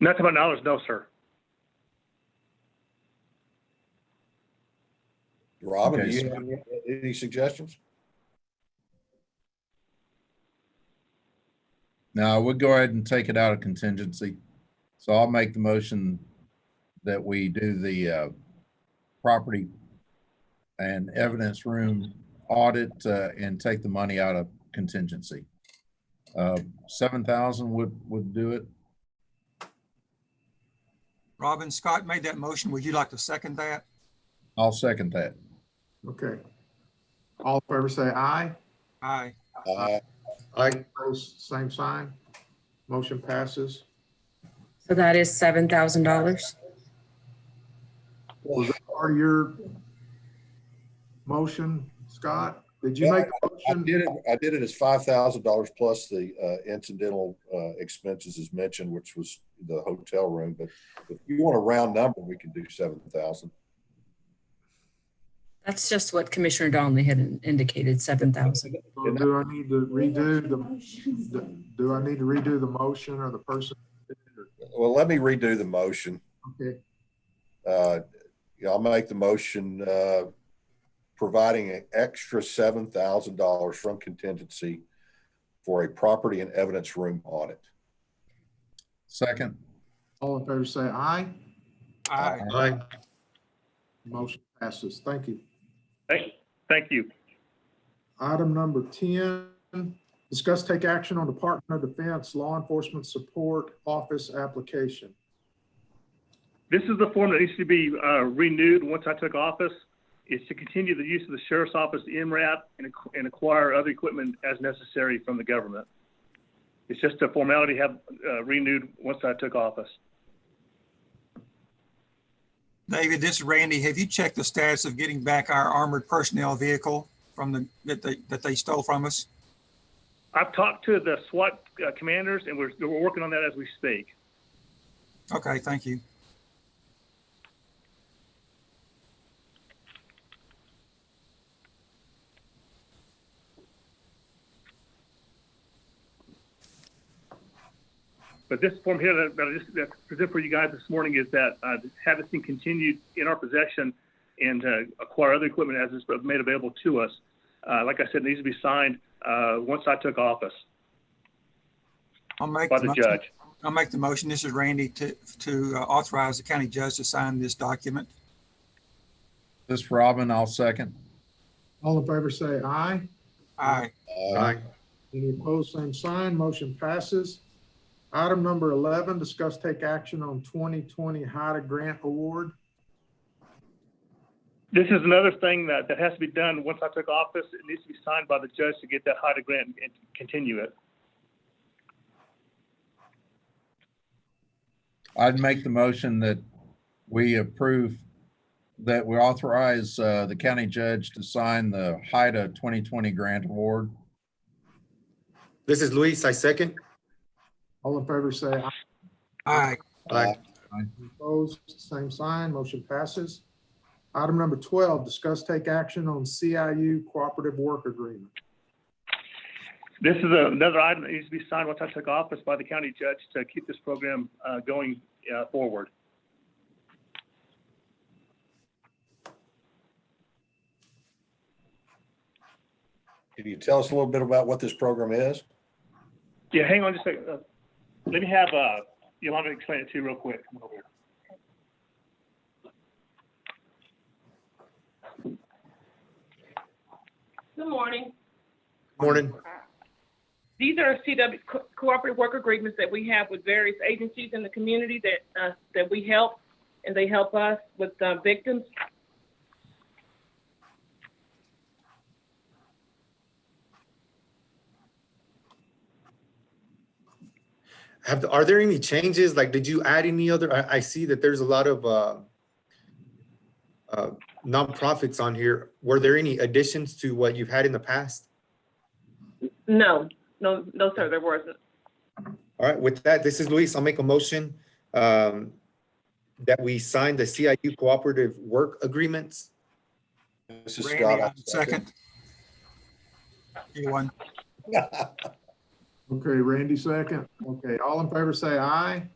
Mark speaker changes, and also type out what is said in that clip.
Speaker 1: Not to my knowledge, no, sir.
Speaker 2: Robin, do
Speaker 3: Okay,
Speaker 2: you
Speaker 3: so-
Speaker 2: have any- any suggestions?
Speaker 3: No, we'll go ahead and take it out of contingency. So I'll make the motion that we do the uh, property and evidence room audit uh, and take the money out of contingency. Uh, 7,000 would, would do it.
Speaker 4: Robin, Scott made that motion. Would you like to second that?
Speaker 3: I'll second that.
Speaker 5: Okay. All in favor say aye.
Speaker 4: Aye.
Speaker 2: Uh,
Speaker 5: Aye. Opposed, same sign. Motion passes.
Speaker 6: So that is seven thousand dollars.
Speaker 5: Was that part of your motion, Scott? Did you
Speaker 2: Yeah,
Speaker 5: make a
Speaker 2: I
Speaker 5: motion?
Speaker 2: did it, I did it as five thousand dollars plus the uh, incidental uh, expenses as mentioned, which was the hotel room, but if you want a round number, we can do seven thousand.
Speaker 6: That's just what Commissioner Donnelly had in- indicated, seven thousand.
Speaker 5: Or do I need to redo the, the- do I need to redo the motion or the person?
Speaker 2: Well, let me redo the motion.
Speaker 5: Okay,
Speaker 2: Uh, yeah, I'll make the motion, uh, providing an extra seven thousand dollars from contingency for a property and evidence room audit.
Speaker 3: Second,
Speaker 5: all in favor say aye.
Speaker 4: Aye.
Speaker 5: Aye. Motion passes. Thank you.
Speaker 1: Thank, thank you.
Speaker 5: Item number 10, discuss take action on Department of Defense Law Enforcement Support Office application.
Speaker 1: This is the form that needs to be uh, renewed once I took office, is to continue the use of the sheriff's office MRAP and ac- and acquire other equipment as necessary from the government. It's just a formality have uh, renewed once I took office.
Speaker 4: David, this is Randy. Have you checked the status of getting back our armored personnel vehicle from the, that they, that they stole from us?
Speaker 1: I've talked to the SWAT uh, commanders, and we're, we're working on that as we speak.
Speaker 4: Okay, thank you.
Speaker 1: But this form here that, that I just that I present for you guys this morning is that uh, have this thing continued in our possession and uh, acquire other equipment as it's made available to us. Uh, like I said, it needs to be signed uh, once I took office
Speaker 4: I'll make.
Speaker 1: by
Speaker 4: the
Speaker 1: the
Speaker 4: motion-
Speaker 1: judge.
Speaker 4: I'll make the motion. This is Randy to, to uh, authorize the county judge to sign this document.
Speaker 3: this Robin, I'll second.
Speaker 5: All in favor say aye.
Speaker 4: Aye.
Speaker 2: Uh,
Speaker 5: Any opposed, same sign. Motion passes. Item number 11, discuss take action on 2020 HIDA grant award.
Speaker 1: This is another thing that, that has to be done once I took office. It needs to be signed by the judge to get that HIDA grant and continue it.
Speaker 3: I'd make the motion that we approve, that we authorize uh, the county judge to sign the HIDA 2020 grant award.
Speaker 7: This is Luis, I second.
Speaker 5: All in favor say aye.
Speaker 4: Aye.
Speaker 2: Aye.
Speaker 5: Opposed, same sign. Motion passes. Item number 12, discuss take action on CIU cooperative work agreement.
Speaker 1: This is a- another item that needs to be signed once I took office by the county judge to keep this program uh, going uh, forward.
Speaker 2: Can you tell us a little bit about what this program is?
Speaker 1: Yeah, hang on just a second. Uh, Let me have, uh, Yolanda explain it to you real quick. Come over here.
Speaker 8: Good morning.
Speaker 7: Morning.
Speaker 8: These are CW co- cooperative work agreements that we have with various agencies in the community that, uh, that we help, and they help us with uh, victims.
Speaker 7: Have, are there any changes? Like, did you add any other? I, I see that there's a lot of, uh, uh, nonprofits on here. Were there any additions to what you've had in the past?
Speaker 8: No, no, no, sir, there wasn't.
Speaker 7: All right, with that, this is Luis. I'll make a motion, um, that we sign the CIU cooperative work agreements.
Speaker 2: This is
Speaker 4: Randy,
Speaker 2: Scott. I
Speaker 4: Second. You won.
Speaker 5: Okay, Randy second. Okay, all in favor say aye.